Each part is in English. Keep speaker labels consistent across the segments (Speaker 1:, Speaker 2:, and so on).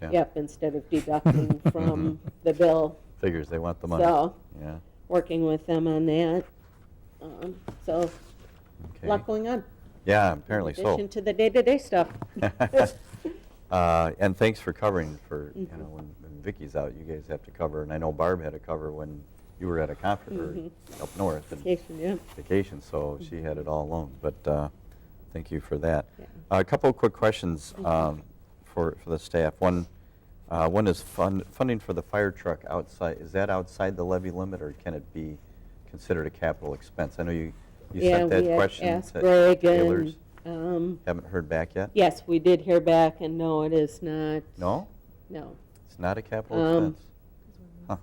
Speaker 1: yeah. Mm-hmm.
Speaker 2: Yep, instead of deducting from the bill.
Speaker 1: Figures they want the money.
Speaker 2: So,
Speaker 1: Yeah,
Speaker 2: working with them on that. Um, So, a lot
Speaker 1: okay.
Speaker 2: going on.
Speaker 1: Yeah, apparently
Speaker 2: In addition
Speaker 1: so.
Speaker 2: to the day-to-day stuff.
Speaker 1: Uh, And thanks for covering for, you
Speaker 2: Mhm.
Speaker 1: know, when when Vicky's out, you guys have to cover, and I know Barb had to cover when you were at a conference
Speaker 2: Mhm.
Speaker 1: or up north and
Speaker 2: Vacation, yeah.
Speaker 1: vacation, so she had it all alone, but uh, thank you for that.
Speaker 2: Yeah.
Speaker 1: A couple of quick questions um, for, for the staff. One, uh, one is fund, funding for the fire truck outside, is that outside the levy limit, or can it be considered a capital expense? I know you, you
Speaker 2: Yeah,
Speaker 1: sent that
Speaker 2: we had
Speaker 1: question
Speaker 2: asked
Speaker 1: to
Speaker 2: Greg and,
Speaker 1: Taylor's.
Speaker 2: um,
Speaker 1: Haven't heard back yet?
Speaker 2: Yes, we did hear back, and no, it is not.
Speaker 1: No?
Speaker 2: No.
Speaker 1: It's not a capital
Speaker 2: Um,
Speaker 1: expense?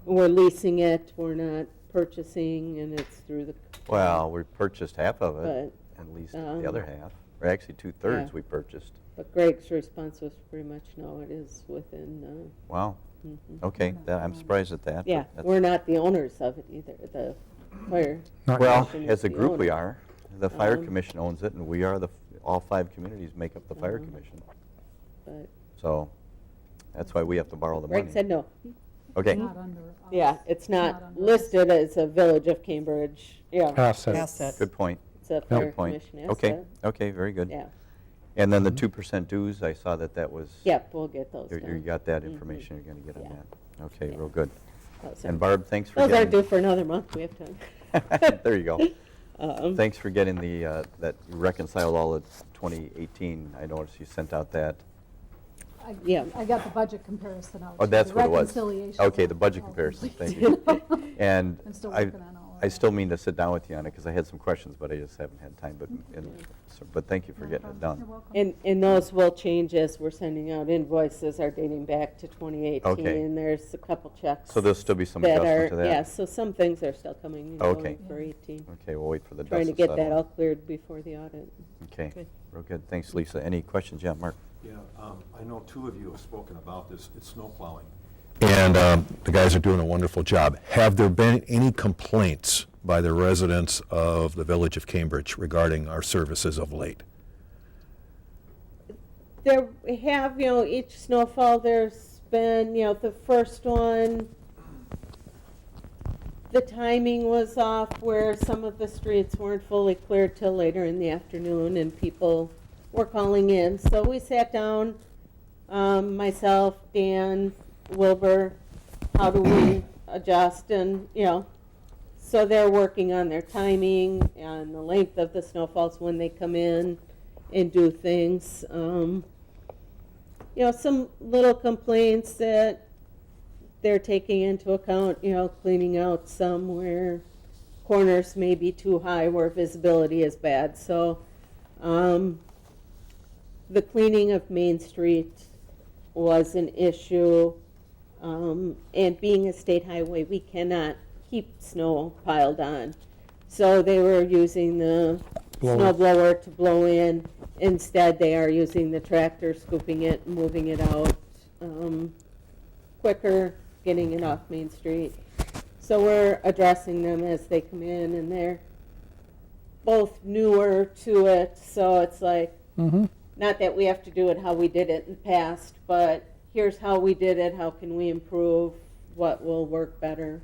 Speaker 2: We're leasing it, we're not purchasing, and it's through the.
Speaker 1: Well, we purchased half of it,
Speaker 2: But,
Speaker 1: and leased
Speaker 2: um,
Speaker 1: the other half, or actually two-thirds
Speaker 2: yeah.
Speaker 1: we purchased.
Speaker 2: but Greg's response was pretty much, no, it is within,
Speaker 1: Wow,
Speaker 2: uh, mhm.
Speaker 1: okay, that- I'm surprised at that. but
Speaker 2: yeah,
Speaker 1: that's-
Speaker 2: we're not the owners of it either, the fire.
Speaker 3: Not
Speaker 1: Well,
Speaker 2: commission is
Speaker 1: as a
Speaker 2: the
Speaker 1: group, we
Speaker 2: owner.
Speaker 1: are. The fire
Speaker 2: Um,
Speaker 1: commission owns it, and we are the, all five communities make up the fire
Speaker 2: Mhm.
Speaker 1: commission.
Speaker 2: but
Speaker 1: So that's why we have to borrow Oh, the
Speaker 2: Greg
Speaker 1: money.
Speaker 2: said no.
Speaker 1: Okay,
Speaker 4: Not under us.
Speaker 2: Yeah, it's not Ah,
Speaker 4: under us.
Speaker 2: listed as a village of Cambridge, yeah,
Speaker 3: Asset.
Speaker 5: Asset.
Speaker 1: good point,
Speaker 2: it's a fire
Speaker 1: good point.
Speaker 2: commission
Speaker 1: Okay,
Speaker 2: asset.
Speaker 1: okay, very good.
Speaker 2: Yeah,
Speaker 1: And
Speaker 2: Mm-hmm.
Speaker 1: then the 2% dues, I saw that that was.
Speaker 2: yep, we'll get those
Speaker 1: you- You
Speaker 2: done.
Speaker 1: got that
Speaker 2: Mhm.
Speaker 1: information you're going to get on
Speaker 2: Yeah.
Speaker 1: that. Okay,
Speaker 2: Yeah.
Speaker 1: real good.
Speaker 2: Those
Speaker 1: And
Speaker 2: are-
Speaker 1: Barb, thanks for
Speaker 2: those are
Speaker 1: getting.
Speaker 2: due for another month, we have time.
Speaker 1: There you go.
Speaker 2: Um,
Speaker 1: Thanks for getting the, uh, that you reconciled all of 2018. I noticed you sent out that.
Speaker 4: I-
Speaker 2: Yeah.
Speaker 4: I got the budget comparison out.
Speaker 1: Oh,
Speaker 4: too,
Speaker 1: that's
Speaker 4: the
Speaker 1: what it was.
Speaker 4: reconciliation.
Speaker 1: Okay, the budget
Speaker 4: Oh,
Speaker 1: comparison, thank
Speaker 4: please.
Speaker 1: you. And
Speaker 4: I'm still
Speaker 1: I,
Speaker 4: working on all of
Speaker 1: I
Speaker 4: that.
Speaker 1: still mean to sit down with you on it, because I had some questions, but I just haven't had time, but, and- so- but thank you for
Speaker 4: No
Speaker 1: getting it
Speaker 4: problem.
Speaker 1: done.
Speaker 4: You're welcome.
Speaker 2: And, and those will change as we're sending out invoices are dating back to 2018.
Speaker 1: Okay.
Speaker 2: And there's a couple checks.
Speaker 1: So there'll still be some
Speaker 2: that
Speaker 1: adjustment
Speaker 2: are-
Speaker 1: to that?
Speaker 2: Yeah, so some things are still coming and
Speaker 1: Okay.
Speaker 2: going for 18.
Speaker 1: Okay, we'll wait for the dust
Speaker 2: Trying to get
Speaker 1: settle.
Speaker 2: that all cleared before the audit.
Speaker 1: Okay,
Speaker 2: Good.
Speaker 1: real good, thanks, Lisa. Any questions? Yeah, Mark?
Speaker 6: Yeah, um, I know two of you have spoken about this, it's snow plowing.
Speaker 7: And um, the guys are doing a wonderful job. Have there been any complaints by the residents of the village of Cambridge regarding our services of late?
Speaker 2: There we have, you know, each snowfall, there's been, you know, the first one, the timing was off where some of the streets weren't fully cleared till later in the afternoon and people were calling in. So we sat down, um, myself, Dan, Wilbur, how do we adjust and, you know, so they're working on their timing and the length of the snowfalls when they come in and do things. Um, you know, some little complaints that they're taking into account, you know, cleaning out some where corners may be too high where visibility is bad. So, um, the cleaning of Main Street was an issue. Um, and being a state highway, we cannot keep snow piled on. So they were using the
Speaker 3: Blower.
Speaker 2: snow blower to blow in. Instead, they are using the tractor, scooping it, moving it out, um, quicker, getting it off Main Street. So we're addressing them as they come in and they're both newer to it, so it's like,
Speaker 3: Mhm.
Speaker 2: not that we have to do it how we did it in the past, but here's how we did it, how can we improve, what will work better.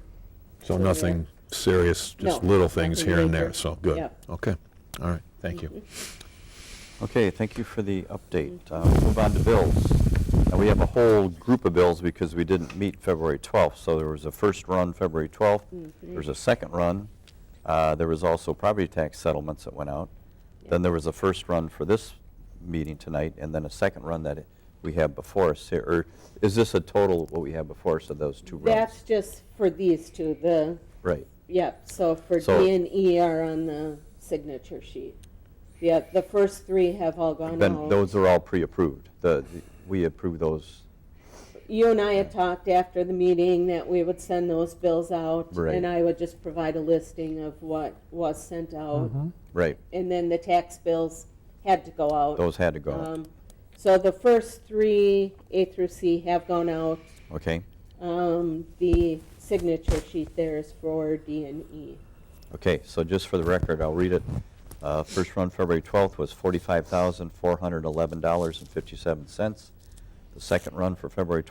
Speaker 7: So nothing serious, just
Speaker 2: No,
Speaker 7: little things
Speaker 2: nothing
Speaker 7: here and
Speaker 2: major.
Speaker 7: there, so good.
Speaker 2: Yep.
Speaker 7: Okay, all right, thank you.
Speaker 1: Okay, thank you for the update. Uh, we'll Move on to bills. Now, we have a whole group of bills because we didn't meet February 12th. So there was a first run February 12th,
Speaker 2: Mm-hmm.
Speaker 1: there was a second run. Uh, There was also property tax settlements that went out. Then there was a first run for this meeting tonight, and then a second run that we have before us here. Or is this a total of what we have before us of those two runs?
Speaker 2: That's just for these two, the,
Speaker 1: Right,
Speaker 2: yep, so for
Speaker 1: So-
Speaker 2: D and E are on the signature sheet. Yeah, the first three have all gone
Speaker 1: then
Speaker 2: out.
Speaker 1: those are all pre-approved. The, the- we approve those,
Speaker 2: You and I had talked after the meeting that we would send those bills out.
Speaker 1: Right.
Speaker 2: And I would just provide a listing of what was sent out.
Speaker 1: Mm-hmm. right,
Speaker 2: And then the tax bills had to go out.
Speaker 1: those had to go, out.
Speaker 2: Um, So the first three, A through C, have gone out.
Speaker 1: okay?
Speaker 2: Um, The signature sheet there is for D and E.
Speaker 1: Okay, so just for the record, I'll read it. Uh, First run, February 12th, was $45,411.57. The second run for February